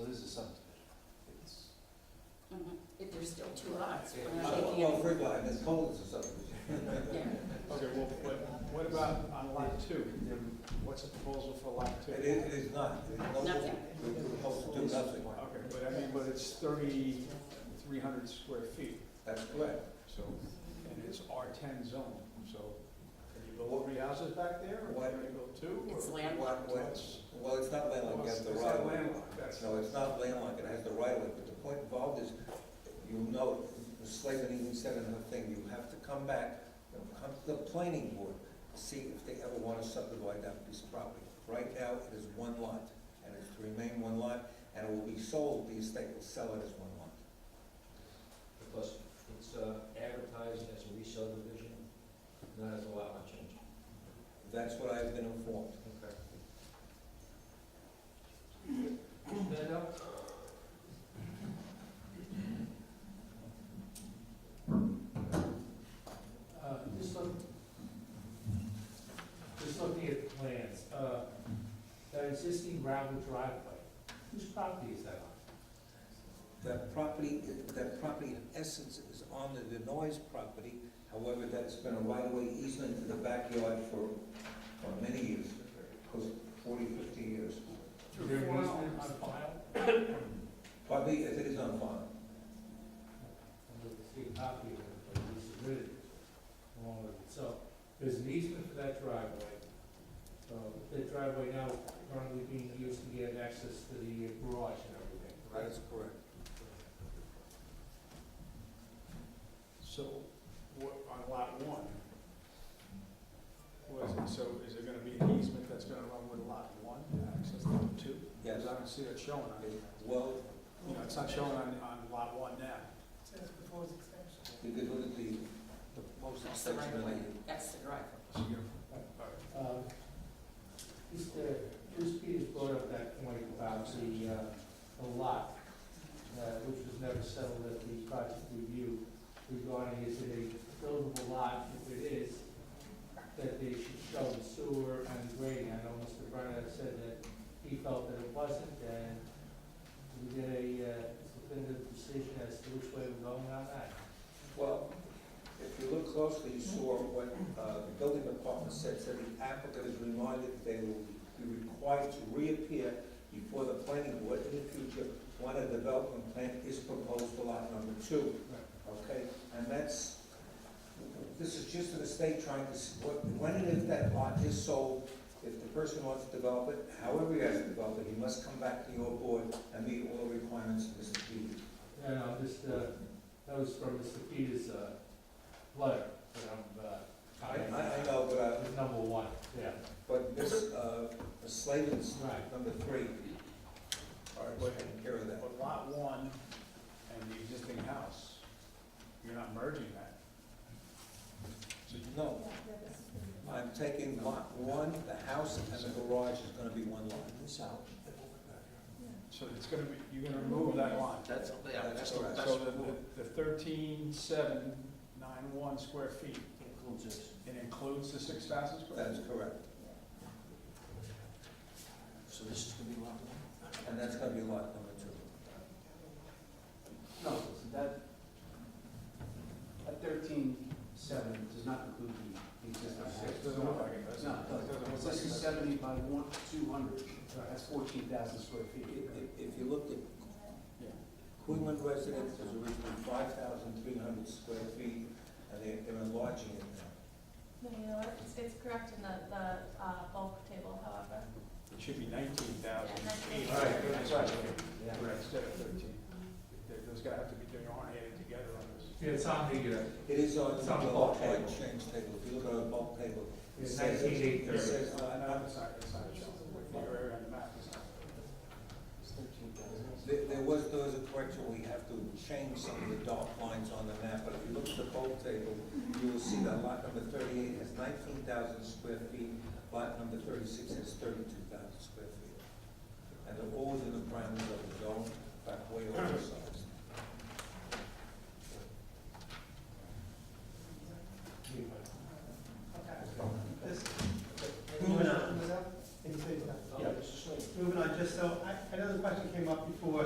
Mm-hmm. two lots. We're not Well, taking well, any- third line, that's called a subdivision. Yeah. Okay, well, but what about on lot two? What's the proposal for lot two? It is, it is not, it is no, Nothing. it would help do nothing, Okay, but I mean, but it's thirty-three hundred square feet, that's correct. so, and it's R ten zone, so can you build three houses back there, or can you build two? or- It's land. What, what, That's- well, it's not landlocked, it has It's the it's right not of way. landlocked, that's, No, it's not landlocked, it has the right of way, but the point involved is, you know, Slavin even said another thing, you have to come back, you know, come to the planning board, see if they ever want to subdivide that piece of property. Right now, it is one lot, and it's to remain one lot, and it will be sold, the estate will sell it as one lot. Plus, it's uh, advertised as a re-subdivision, not as a lot line change. That's what I've been informed. Okay. Stand up. Uh, Just look, just looking at the plans, uh, that existing gravel driveway, whose property is that on? That property, that property in essence is on the Denoise property, however, that's been a right-of-way easement to the backyard for, for many years, close to 40, 50 years. Is Through there four an easement homes. on file? Probably, if it is on file, I don't see a copy of it, but it was submitted along with it. So there's an easement for that driveway. So that driveway now currently being used to get access to the garage and everything, that right? is correct. so, what, on lot one? Was, so is there gonna be an easement that's gonna run with lot one, access to lot two? Yes. Because I don't see that showing on, It- Well, you know, it's not showing on, on lot one now. you could look at the, the most That's the right section of of way. the- That's the driveway. So you're gonna- all right. Um, Mr. Bruce uh, Peters brought up that point about the, uh, the lot, uh, which was never settled at the project review regarding is it a buildable lot? If it is, that they should show the sewer and the grading. I know Mr. Brenner said that he felt that it wasn't, and we did a, uh, definitive decision as to which way we're going on that. well, if you look closely, you saw what, uh, the building department said, said the applicant is reminded that they will be required to reappear before the planning board in the future when a development plan is proposed for lot number two. Okay, and that's, this is just an estate trying to, s- what- when and if that lot is sold, if the person wants to develop it, however he has to develop it, he must come back to your board and meet all the requirements of Mr. Peters. No, no, just, uh, that was from Mr. Peters' uh, letter that I'm, uh, I, commenting I I on. know, but, That uh, was number one, yeah, but Ms. uh, Ms. Slavin's right. number three, all right, we're taking care of that. But lot one and the existing house, you're not merging that. So you- No, I'm taking lot one, the house and the garage is gonna be one lot. So it's gonna be, you're gonna remove that line. That's, yeah, that's, That's the- correct. that's So the, the rule. the- the thirteen, seven, nine, one square feet, it includes the six thousand square? That is correct, So this is gonna be lot one? and that's gonna be lot number two. No, so that, that thirteen seven does not include the existing house. It Doesn't look like it, does it? No, it It doesn't. look like This it. is seventy by one, two hundred, that's fourteen thousand square feet. If- If if you looked at Yeah. Quinlan residence was originally five thousand three hundred square feet, and they- they're enlarging it now. No, you know what, it's, it's correct in the, the uh, bulk table, however. It should be nineteen thousand eight Yeah, hundred. 19,800. That's right. Right, Instead of thirteen. There- There's gonna have to be, they aren't added together on this. Yeah, it's on the, uh, It is on It's the on the bulk lot line table. change table, if you look at the bulk table. it It's says- 19,830. It says, uh, Uh, no, not- it's not, it's not showing. The area on the map is not. It's thirteen thousand. There, there was, there was a correction, we have to change some of the dark lines on the map, but if you look at the bulk table, you will see that lot number thirty-eight has nineteen thousand square feet, lot number thirty-six has thirty-two thousand square feet. And they're all within the parameters of the